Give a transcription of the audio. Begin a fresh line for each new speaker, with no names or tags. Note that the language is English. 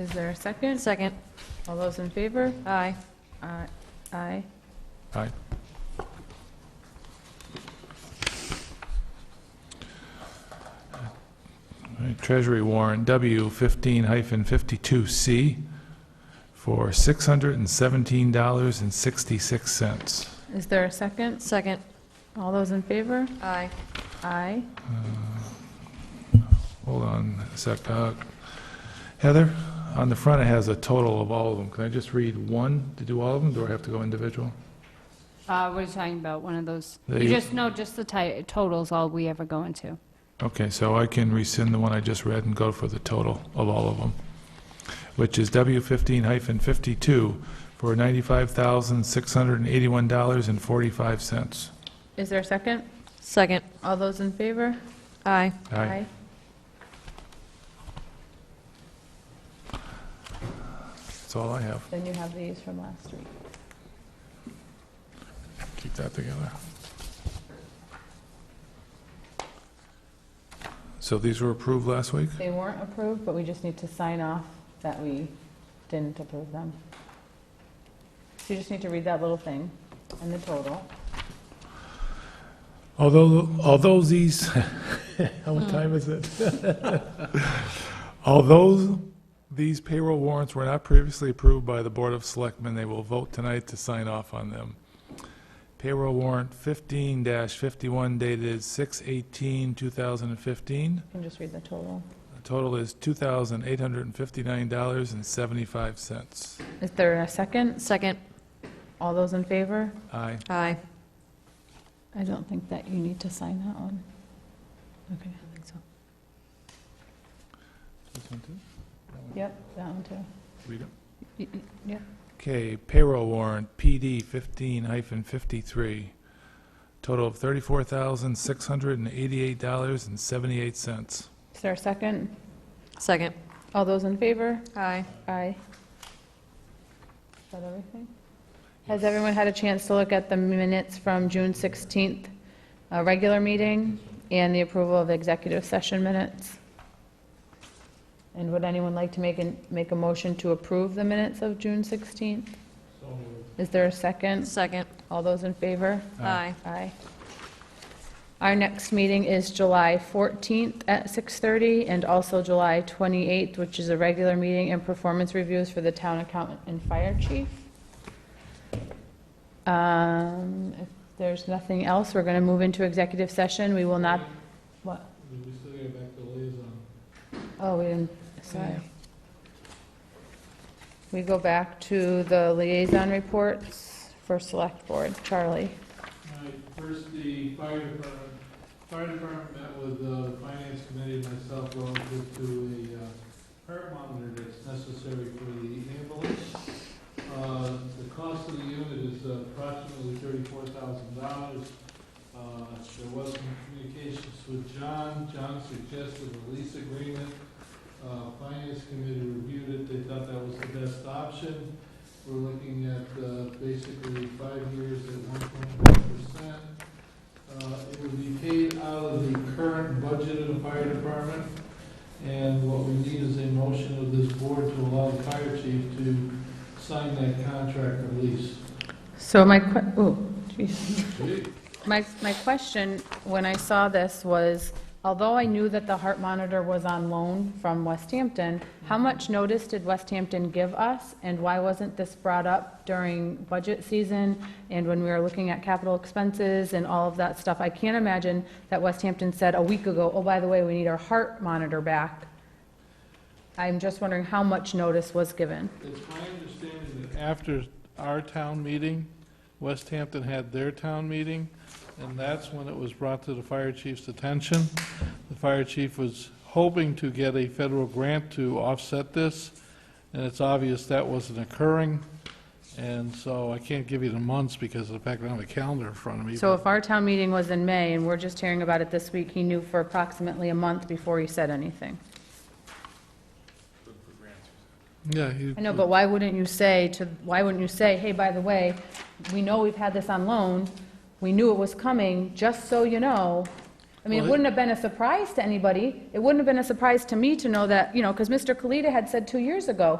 Is there a second?
Second.
All those in favor?
Aye.
Aye. Aye.
Aye. All right, Treasury warrant W fifteen hyphen fifty-two C for six hundred and seventeen dollars and sixty-six cents.
Is there a second?
Second.
All those in favor?
Aye.
Aye.
Hold on a sec. Uh, Heather, on the front it has a total of all of them. Can I just read one to do all of them? Do I have to go individual?
Uh, we're talking about one of those,
There
you
you-
just know, just the ti- totals, all we ever go into.
Okay, so I can rescind the one I just read and go for the total of all of them, which is W fifteen hyphen fifty-two for ninety-five thousand, six hundred and eighty-one dollars and forty-five cents.
Is there a second?
Second.
All those in favor?
Aye.
That's all I have.
Then you have these from last week.
Keep that together. So these were approved last week?
They weren't approved, but we just need to sign off that we didn't approve them. So you just need to read that little thing and the total.
Although, although these, how much time is it? Although these payroll warrants were not previously approved by the Board of Selectmen, they will vote tonight to sign off on them. Payroll warrant fifteen fifty-one dated 6-18-2015.
You can just read the total.
The total is two thousand eight hundred and fifty-nine dollars and seventy-five cents.
Is there a second?
Second.
All those in favor?
Aye.
Aye.
I don't think that you need to sign that one. Okay. Yep, that one too.
Read it.
Y- y- Yeah.
Okay, payroll warrant, PD fifteen hyphen fifty-three, total of thirty-four thousand, six hundred and eighty-eight dollars and seventy-eight cents.
Is there a second?
Second.
All those in favor?
Aye.
Aye. Is that everything? Has everyone had a chance to look at the minutes from June 16th, uh, regular meeting, and the approval of executive session minutes? And would anyone like to make, an- make a motion to approve the minutes of June 16th? Is there a second?
Second.
All those in favor?
Aye.
Aye. Our next meeting is July 14th at 6:30, and also July 28th, which is a regular meeting and performance reviews for the town accountant and fire chief. Um, If there's nothing else, we're going to move into executive session. We will not, what? Oh, we didn't, sorry. We go back to the liaison reports for select board. Charlie?
Alright, First, the fire department. Fire department met with the finance committee and myself relative to a uh, heart monitor that's necessary for the ambulance. Uh, The cost of the unit is approximately thirty-four thousand dollars. Uh, There was some communications with John. John suggested a lease agreement. Uh, Finance committee reviewed it. They thought that was the best option. We're looking at uh, basically five years at one point five percent. Uh, It would be paid out of the current budget of the fire department. And what we need is a motion of this board to allow the fire chief to sign that contract or lease.
So my, que- oh, ooh, jeez. my, my question when I saw this was, although I knew that the heart monitor was on loan from West Hampton, how much notice did West Hampton give us, and why wasn't this brought up during budget season and when we were looking at capital expenses and all of that stuff? I can't imagine that West Hampton said a week ago, oh, by the way, we need our heart monitor back. I'm just wondering how much notice was given.
It's my understanding that after our town meeting, West Hampton had their town meeting, and that's when it was brought to the fire chief's attention. The fire chief was hoping to get a federal grant to offset this, and it's obvious that wasn't occurring, and so I can't give you the months because of the fact I don't have a calendar in front of me.
So
but-
if our town meeting was in May and we're just hearing about it this week, he knew for approximately a month before he said anything.
Yeah. he-
I know, but why wouldn't you say to, why wouldn't you say, hey, by the way, we know we've had this on loan, we knew it was coming, just so you know, I mean, it
Well, it-
wouldn't have been a surprise to anybody. It wouldn't have been a surprise to me to know that, you know, because Mr. Kalita had said two years ago,